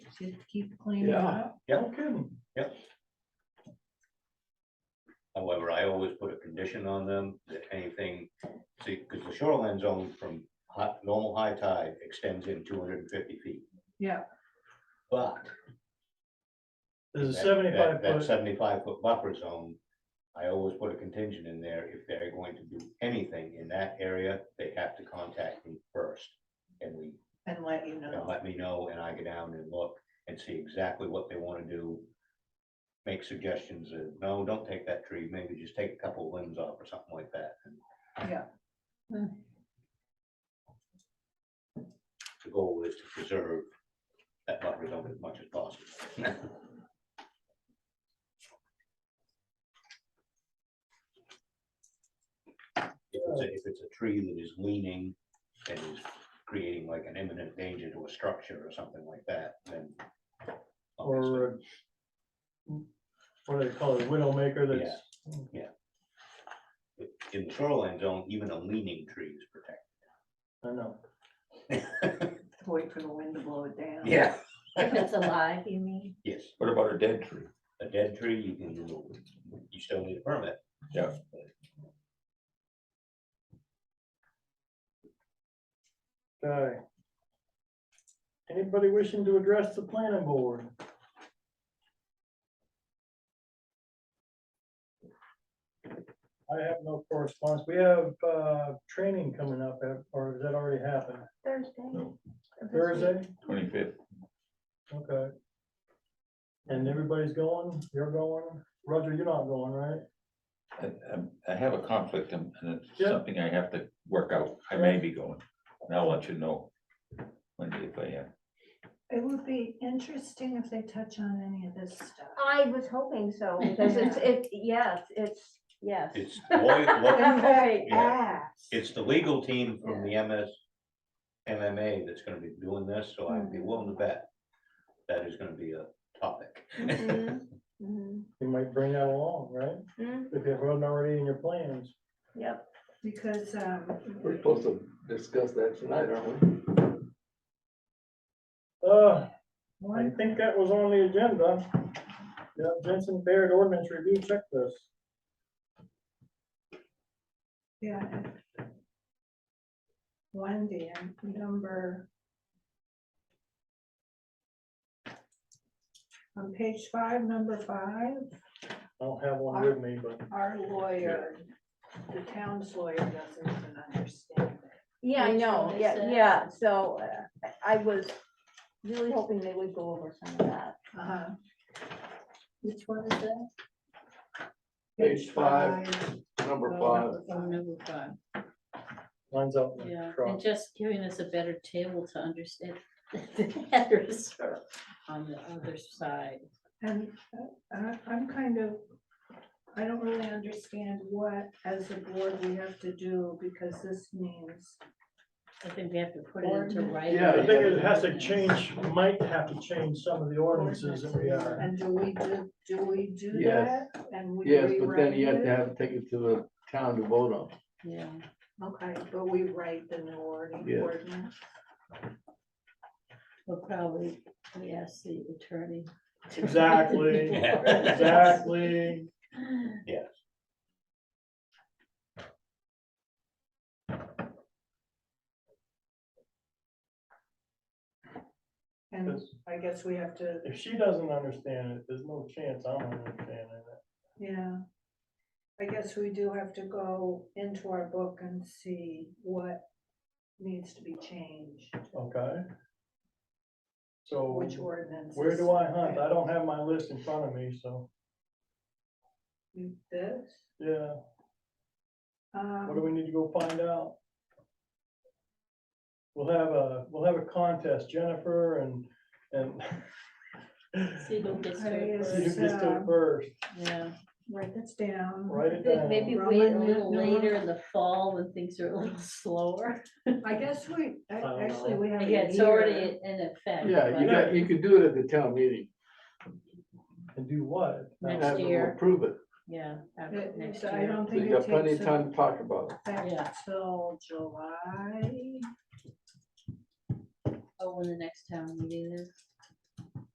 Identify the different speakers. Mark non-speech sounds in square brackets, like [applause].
Speaker 1: to keep cleaning
Speaker 2: Yeah.
Speaker 1: up.
Speaker 3: Yeah, okay, yep. However, I always put a condition on them that anything, see, because the shoreline zone from high, normal high tide extends in two hundred and fifty feet.
Speaker 1: Yeah.
Speaker 3: But.
Speaker 2: There's a
Speaker 3: that-
Speaker 2: seventy-five
Speaker 3: that- That
Speaker 2: foot,
Speaker 3: seventy-five foot buffer zone, I always put a contingent in there, if they're going to do anything in that area, they have to contact me first. And we
Speaker 1: and let you
Speaker 3: and
Speaker 1: know.
Speaker 3: let me know, and I go down and look and see exactly what they wanna do. Make suggestions, and no, don't take that tree, maybe just take a couple limbs off or something like that. and
Speaker 1: Yeah.
Speaker 3: The goal is to preserve that buffer zone as much as possible. If it's a- if it's a tree that is leaning and is creating like an imminent danger to a structure or something like that, then. obviously,
Speaker 2: or uh, what do they call it, widowmaker that's,
Speaker 3: In the shoreline zone, even a leaning tree is protected.
Speaker 2: I know,
Speaker 1: Wait for the wind to blow it down.
Speaker 4: [laughs] If it's alive, you mean?
Speaker 3: Yes,
Speaker 5: What about a dead tree?
Speaker 3: a dead tree, you can, remove. you still need a permit.
Speaker 5: Yeah.
Speaker 2: Okay. Anybody wishing to address the planning board? I have no correspondence, we have, uh, training coming up, uh, or has that already happened,
Speaker 4: Thursday.
Speaker 5: No.
Speaker 2: Thursday?
Speaker 5: Twenty-fifth.
Speaker 2: Okay. And everybody's going, you're going, Roger, you're not going, right?
Speaker 5: I, I'm- I have a conflict and and it's
Speaker 2: Yeah.
Speaker 5: something I have to work out. I may be going. And I'll let you know. Monday if I am.
Speaker 1: It would be interesting if they touch on any of this
Speaker 4: [laughs]
Speaker 1: stuff.
Speaker 4: I was hoping [laughs] so, because it's, it, yes, it's, yes.
Speaker 3: It's lawyer, law-
Speaker 4: I'm very
Speaker 3: Yeah.
Speaker 4: ass.
Speaker 3: it's the legal team from the MS, MMA that's gonna be doing this, so I'd be willing to bet that is gonna be a topic.
Speaker 4: Mhm, mhm,
Speaker 2: You might bring that along, right?
Speaker 4: mhm,
Speaker 2: If it wasn't already in your plans.
Speaker 4: Yep,
Speaker 1: Because, um,
Speaker 6: We're supposed to discuss that tonight, aren't we?
Speaker 2: Uh, I
Speaker 1: one,
Speaker 2: think that was on the agenda. Yeah, Jensen Baird ordinance review checklist.
Speaker 1: yeah. One, Dan, number. On page five, number five.
Speaker 2: I don't have one with me, but
Speaker 1: Our lawyer, the town's lawyer doesn't even understand it.
Speaker 4: yeah, I
Speaker 1: Page
Speaker 4: know, yeah,
Speaker 1: 26.
Speaker 4: yeah, so uh, I- I was really hoping they would go over some of that.
Speaker 1: Uh-huh.
Speaker 4: Which one is that?
Speaker 6: Page five. Number five.
Speaker 1: Number five.
Speaker 7: Number five,
Speaker 2: lines up. in the
Speaker 7: yeah,
Speaker 2: truck.
Speaker 7: and just giving us a better table to understand [laughs] the headers are on the other side.
Speaker 1: And uh, I, I'm kind of, I don't really understand what, as a board, we have to do, because this means,
Speaker 7: I think we have to put it into
Speaker 1: Ordinance.
Speaker 7: writing.
Speaker 2: Yeah, I think it has to change, might have to change some of the ordinances that we are.
Speaker 1: and do we do, do we do that?
Speaker 6: Yes.
Speaker 1: And we
Speaker 6: Yes, but then
Speaker 1: rewrite
Speaker 6: you have
Speaker 1: it?
Speaker 6: to have, take it to the town to vote on.
Speaker 7: Yeah,
Speaker 1: Okay, but we write the new ordin-
Speaker 6: Yeah.
Speaker 1: ordinance.
Speaker 7: we'll probably, we ask the attorney. to-
Speaker 2: Exactly.
Speaker 7: [laughs]
Speaker 3: Yeah.
Speaker 2: Exactly.
Speaker 3: Yes.
Speaker 1: And I guess we have to,
Speaker 2: If she doesn't understand it, there's no chance I'm understanding it.
Speaker 1: yeah. I guess we do have to go into our book and see what needs to be changed,
Speaker 2: Okay? So.
Speaker 1: which ordinance.
Speaker 2: Where do I hunt? I don't have my list in front of me, so,
Speaker 1: This,
Speaker 2: yeah,
Speaker 1: um.
Speaker 2: what do we need to go find out? We'll have a, we'll have a contest, Jennifer and, and [laughs]
Speaker 7: See who gets to
Speaker 1: Okay,
Speaker 7: it
Speaker 1: is-
Speaker 2: you
Speaker 7: first.
Speaker 2: just do it first,
Speaker 7: Yeah,
Speaker 1: Write this down.
Speaker 2: write it
Speaker 4: Maybe- maybe
Speaker 2: down.
Speaker 7: probably a
Speaker 4: Wait,
Speaker 7: little
Speaker 1: no.
Speaker 7: later in the fall when things are a little slower.
Speaker 1: I guess we, I-
Speaker 2: don't
Speaker 1: actually,
Speaker 2: know.
Speaker 1: we have. a
Speaker 7: Again, it's
Speaker 1: year.
Speaker 7: already in effect.
Speaker 6: Yeah, you
Speaker 7: but
Speaker 6: got, you could do it at the town meeting.
Speaker 2: And do what?
Speaker 7: Next
Speaker 6: Have them
Speaker 7: year.
Speaker 6: Approve it.
Speaker 7: Yeah. after
Speaker 1: It-
Speaker 7: next
Speaker 1: it's- I
Speaker 7: year.
Speaker 1: don't
Speaker 6: So you
Speaker 1: think it
Speaker 6: got plenty of
Speaker 1: takes
Speaker 6: time to talk about it.
Speaker 7: Yeah.
Speaker 1: effect till July.
Speaker 7: Oh, when the next town meeting is.